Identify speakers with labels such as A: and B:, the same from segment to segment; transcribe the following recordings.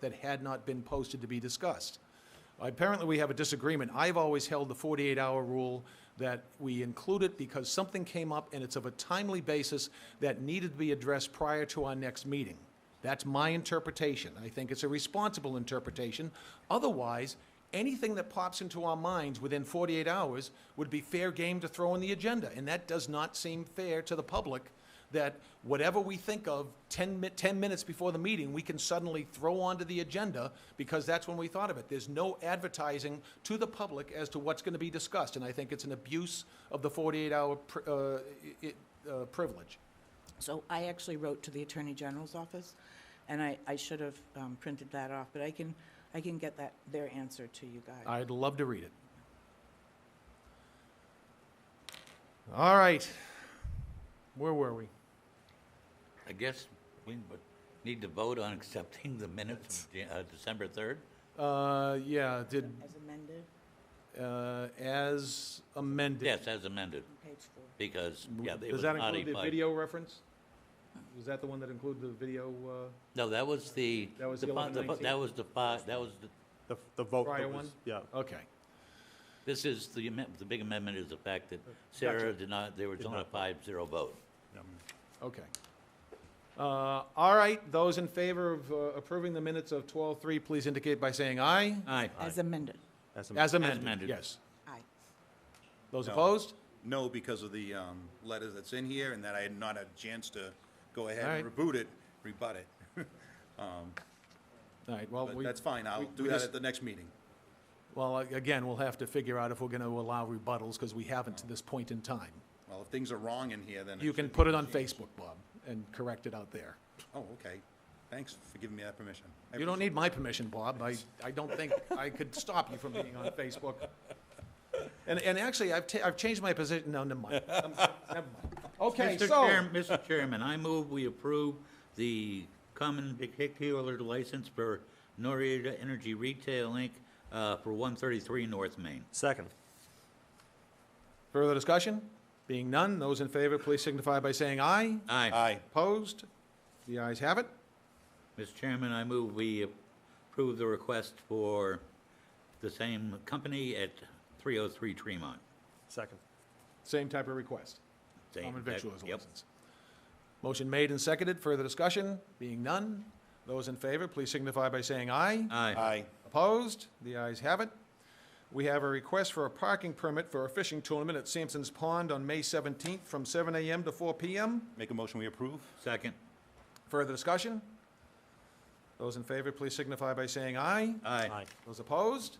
A: that had not been posted to be discussed. Apparently, we have a disagreement. I've always held the 48-hour rule that we include it because something came up and it's of a timely basis that needed to be addressed prior to our next meeting. That's my interpretation. I think it's a responsible interpretation. Otherwise, anything that pops into our minds within 48 hours would be fair game to throw on the agenda, and that does not seem fair to the public that whatever we think of 10, mi- 10 minutes before the meeting, we can suddenly throw onto the agenda because that's when we thought of it. There's no advertising to the public as to what's going to be discussed, and I think it's an abuse of the 48-hour pri- uh, i- i- uh, privilege.
B: So I actually wrote to the Attorney General's office, and I, I should have um, printed that off, but I can, I can get that, their answer to you guys.
A: I'd love to read it. All right. Where were we?
C: I guess we would need to vote on accepting the minutes from Jan- uh, December 3rd.
A: Uh, yeah, did,
B: As amended,
A: uh, as amended.
C: Yes, as amended,
B: on page four.
C: because, yeah, it
A: Does
C: was
A: that
C: modified.
A: include the video reference? Was that the one that included the video, uh?
C: No, that was the,
A: That was
C: the
A: the
C: fi- the fi-
A: 11-19?
C: that was the, fi- that was, the-
D: The, the vote. that
A: Prior
D: was-
A: one?
D: Yeah.
A: Okay.
C: this is, the amendment, the big amendment is the fact that Sarah did not, there was only a five-zero vote.
A: Okay. Uh, All right, those in favor of uh, approving the minutes of 12:03, please indicate by saying aye.
C: Aye.
B: As amended,
D: As a-
A: As amended,
C: amended.
A: yes.
B: aye.
A: Those
E: No.
A: opposed?
E: No, because of the um, letter that's in here and that I had not had a chance to go ahead
A: All
E: and
A: right.
E: reboot it, rebut it.
A: All right, well,
E: But
A: we...
E: that's fine, I'll
A: we-
E: do
A: we
E: that
A: just-
E: at the next meeting.
A: Well, a- again, we'll have to figure out if we're going to allow rebuttals, because we haven't to this point in time.
E: Well, if things are wrong in here, then.
A: You
E: should
A: can
E: be
A: put it on
E: changed.
A: Facebook, Bob, and correct it out there.
E: Oh, okay. Thanks for giving me that permission. I
A: You don't
E: appreciate
A: need my permission, Bob. I, I don't think I could stop you from being on Facebook. And, and actually, I've, ta- I've changed my position, no, never mind. Um, Never mind. Okay,
C: Mr.
A: so...
C: Chair- Mr. Chairman, I move we approve the common vehicular license for Norita Energy Retail, Inc., uh, for 133 North Main.
D: Second.
A: Further discussion? Being none, those in favor, please signify by saying aye.
E: it.
C: Aye.
E: Aye.
A: Opposed? The ayes have it.
C: Mr. Chairman, I move we approve the request for the same company at 303 Tremont.
D: Second.
A: Same type of request.
C: Same
A: Common
C: type-
A: victuals
C: yep.
A: license. Motion made and seconded. Further discussion? Being none, those in favor, please signify by saying aye.
C: Aye.
E: Aye.
A: Opposed? The ayes have it. We have a request for a parking permit for a fishing tournament at Sampson's Pond on May 17th from 7 a.m. to 4 p.m.
E: Make a motion, we approve?
C: Second.
A: Further discussion? Those in favor, please signify by saying aye.
C: Aye.
A: Those opposed?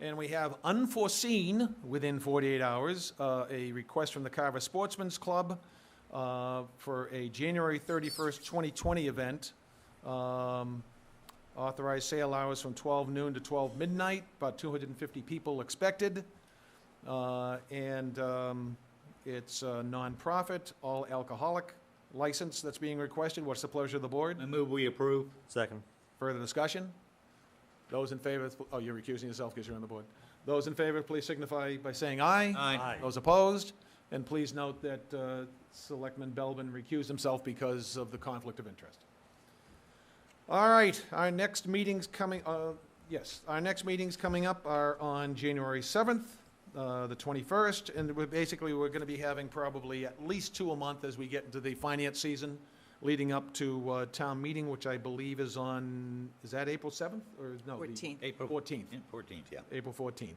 A: And we have unforeseen, within 48 hours, uh, a request from the Carver Sportsman's Club uh, for a January 31st, 2020 event. Um, Authorized sale hours from 12 noon to 12 midnight, about 250 people expected. Uh, And um, it's a nonprofit, all alcoholic license that's being requested. What's the pleasure of the board?
C: I move we approve.
D: Second.
A: Further discussion? Those in favor, oh, you're recusing yourself because you're on the board. Those in favor, please signify by saying aye.
C: Aye.
A: Those opposed? And please note that uh, Selectman Belbin recused himself because of the conflict of interest. All right, our next meetings coming, uh, yes, our next meetings coming up are on January 7th, uh, the 21st, and we're basically, we're going to be having probably at least two a month as we get into the finance season leading up to uh, town meeting, which I believe is on, is that April 7th or no? the-
B: 14th.
C: April
A: 14th.
C: Yeah, 14th, yeah.
A: April 14th.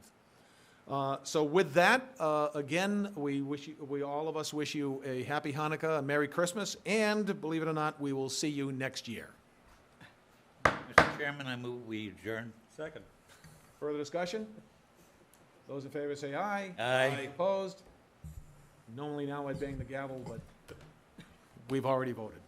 A: Uh, So with that, uh, again, we wish, you- we, all of us wish you a happy Hanukkah, a Merry Christmas, and believe it or not, we will see you next year.
C: Mr. Chairman, I move we adjourn.
D: Second.
A: Further discussion? Those in favor say aye.
C: Aye.
A: Opposed? Normally now I'd bang the gavel, but we've already voted.